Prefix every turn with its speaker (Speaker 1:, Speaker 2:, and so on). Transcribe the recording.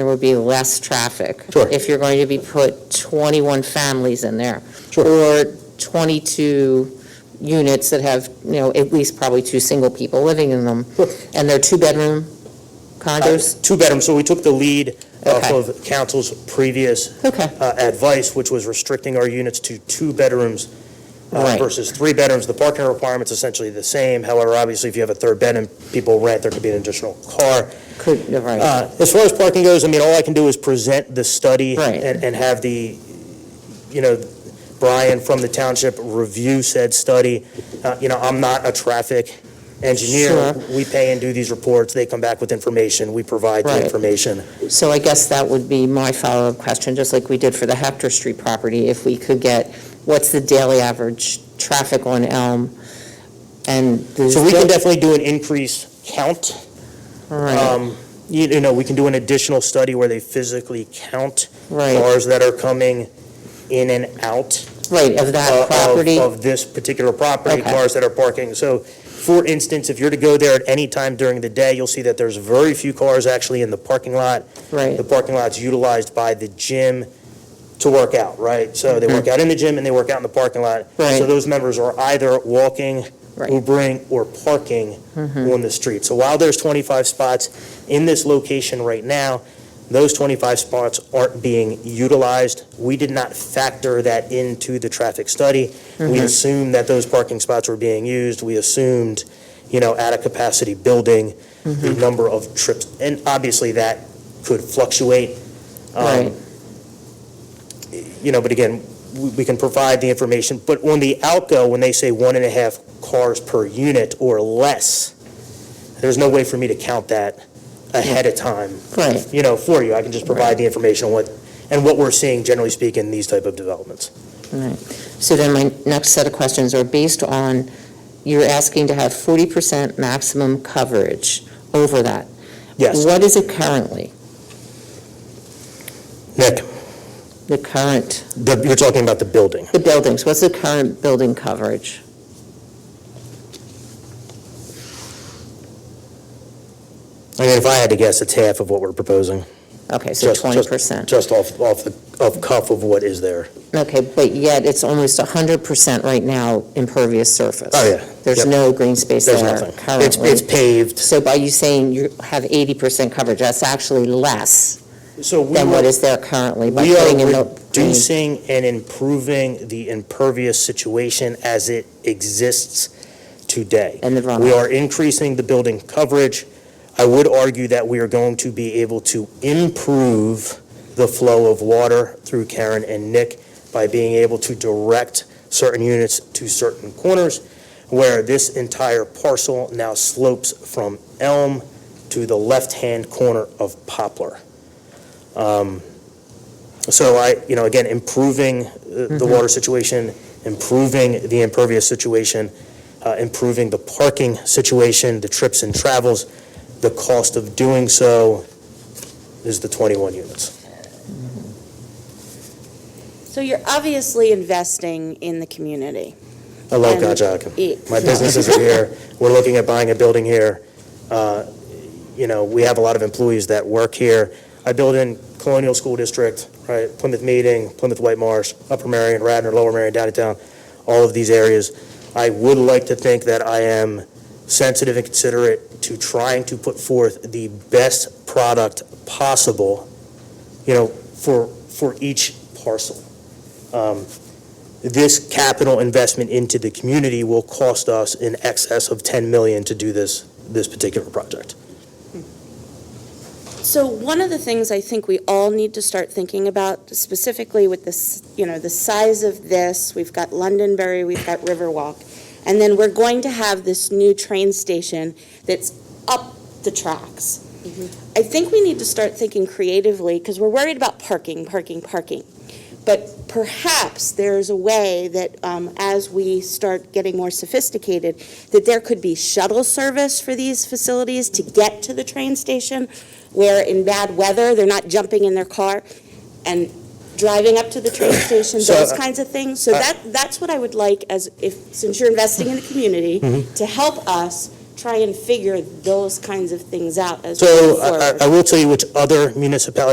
Speaker 1: there would be less traffic.
Speaker 2: Sure.
Speaker 1: If you're going to be put 21 families in there.
Speaker 2: Sure.
Speaker 1: Or 22 units that have, you know, at least probably two single people living in them.
Speaker 2: Sure.
Speaker 1: And they're two-bedroom condos?
Speaker 2: Two bedrooms, so we took the lead off
Speaker 1: Okay.
Speaker 2: of council's previous
Speaker 1: Okay,
Speaker 2: uh, advice, which was restricting our units to two bedrooms uh,
Speaker 1: Right.
Speaker 2: versus three bedrooms. The parking requirement's essentially the same, however, obviously, if you have a third bedroom, people rent, there could be an additional car.
Speaker 1: could, right,
Speaker 2: Uh, As far as parking goes, I mean, all I can do is present the study
Speaker 1: Right.
Speaker 2: and and have the, you know, Brian from the township review said study. Uh, You know, I'm not a traffic engineer.
Speaker 1: Sure.
Speaker 2: We pay and do these reports, they come back with information, we provide the
Speaker 1: Right.
Speaker 2: information.
Speaker 1: so I guess that would be my follow-up question, just like we did for the Hector Street property, if we could get, what's the daily average traffic on Elm? And. the-
Speaker 2: So we can definitely do an increase count.
Speaker 1: Right,
Speaker 2: Um, You you know, we can do an additional study where they physically count
Speaker 1: right,
Speaker 2: cars that are coming in and out.
Speaker 1: right, of
Speaker 2: uh,
Speaker 1: that
Speaker 2: of-
Speaker 1: property.
Speaker 2: Of this particular property,
Speaker 1: Okay.
Speaker 2: cars that are parking. So, for instance, if you're to go there at any time during the day, you'll see that there's very few cars actually in the parking lot.
Speaker 1: Right.
Speaker 2: The parking lot's utilized by the gym to work out, right? So they work out in the gym and they work out in the parking lot. So
Speaker 1: Mm-hmm. Right.
Speaker 2: those members are either walking,
Speaker 1: Right.
Speaker 2: Ubering, or parking on the street. So while there's 25 spots in this location right now, those 25 spots aren't being utilized. We did not factor that into the traffic study. We assumed that those parking spots were being used. We assumed, you know, at a capacity building, the number of trips. And obviously, that could fluctuate. um,
Speaker 1: Right.
Speaker 2: You know, but again, we we can provide the information. But on the outgo, when they say one and a half cars per unit or less, there's no way for me to count that ahead of time
Speaker 1: Right,
Speaker 2: you know, for you. I can just provide the information on what, and what we're seeing, generally speaking, in these type of developments.
Speaker 1: right. So then my next set of questions are based on, you're asking to have 40% maximum coverage over that.
Speaker 2: Yes,
Speaker 1: What is it currently,
Speaker 2: Nick,
Speaker 1: the current,
Speaker 2: the- you're talking about the building.
Speaker 1: the buildings, what's the current building coverage?
Speaker 2: I mean, if I had to guess, it's half of what we're proposing,
Speaker 1: Okay, so
Speaker 2: Just- just-
Speaker 1: 20%.
Speaker 2: just off, off the, off cuff of what is there.
Speaker 1: Okay, but yet it's almost 100% right now impervious surface.
Speaker 2: Oh, yeah.
Speaker 1: There's
Speaker 2: Yep.
Speaker 1: no green space
Speaker 2: There's
Speaker 1: there
Speaker 2: nothing. It's, it's
Speaker 1: currently.
Speaker 2: paved.
Speaker 1: So by you saying you have 80% coverage, that's actually less
Speaker 2: So we
Speaker 1: than what
Speaker 2: are,
Speaker 1: is there currently by
Speaker 2: we
Speaker 1: putting in the
Speaker 2: are
Speaker 1: green
Speaker 2: reducing and improving the impervious situation as it exists today.
Speaker 1: and the runoff.
Speaker 2: We are increasing the building coverage. I would argue that we are going to be able to improve the flow of water through Karen and Nick by being able to direct certain units to certain corners, where this entire parcel now slopes from Elm to the left-hand corner of Poplar. Um, So I, you know, again, improving uh, the
Speaker 1: Mm-hmm.
Speaker 2: water situation, improving the impervious situation, uh, improving the parking situation, the trips and travels. The cost of doing so is the 21 units.
Speaker 3: So you're obviously investing in the community.
Speaker 2: I love
Speaker 3: And-
Speaker 2: Conshohocken.
Speaker 3: E-
Speaker 2: My businesses are here. We're looking at buying a building here. Uh, You know, we have a lot of employees that work here. I build in Colonial School District, right, Plymouth Meeting, Plymouth White Marsh, Upper Marion, Radnor, Lower Marion, Downtown, all of these areas. I would like to think that I am sensitive and considerate to trying to put forth the best product possible, you know, for, for each parcel. Um, This capital investment into the community will cost us in excess of 10 million to do this, this particular project.
Speaker 3: So one of the things I think we all need to start thinking about specifically with this, you know, the size of this, we've got Londonderry, we've got Riverwalk, and then we're going to have this new train station that's up the tracks.
Speaker 2: Mm-hmm.
Speaker 3: I think we need to start thinking creatively because we're worried about parking, parking, parking. But perhaps there's a way that um, as we start getting more sophisticated, that there could be shuttle service for these facilities to get to the train station where in bad weather, they're not jumping in their car and driving up to the train station,
Speaker 2: So,
Speaker 3: those
Speaker 2: uh,
Speaker 3: kinds of things. So that, that's what I would like as if, since you're investing in the community,
Speaker 2: Mm-hmm.
Speaker 3: to help us try and figure those kinds of things out as we
Speaker 2: So
Speaker 3: move
Speaker 2: I-
Speaker 3: forward.
Speaker 2: I I will tell you which other municipalities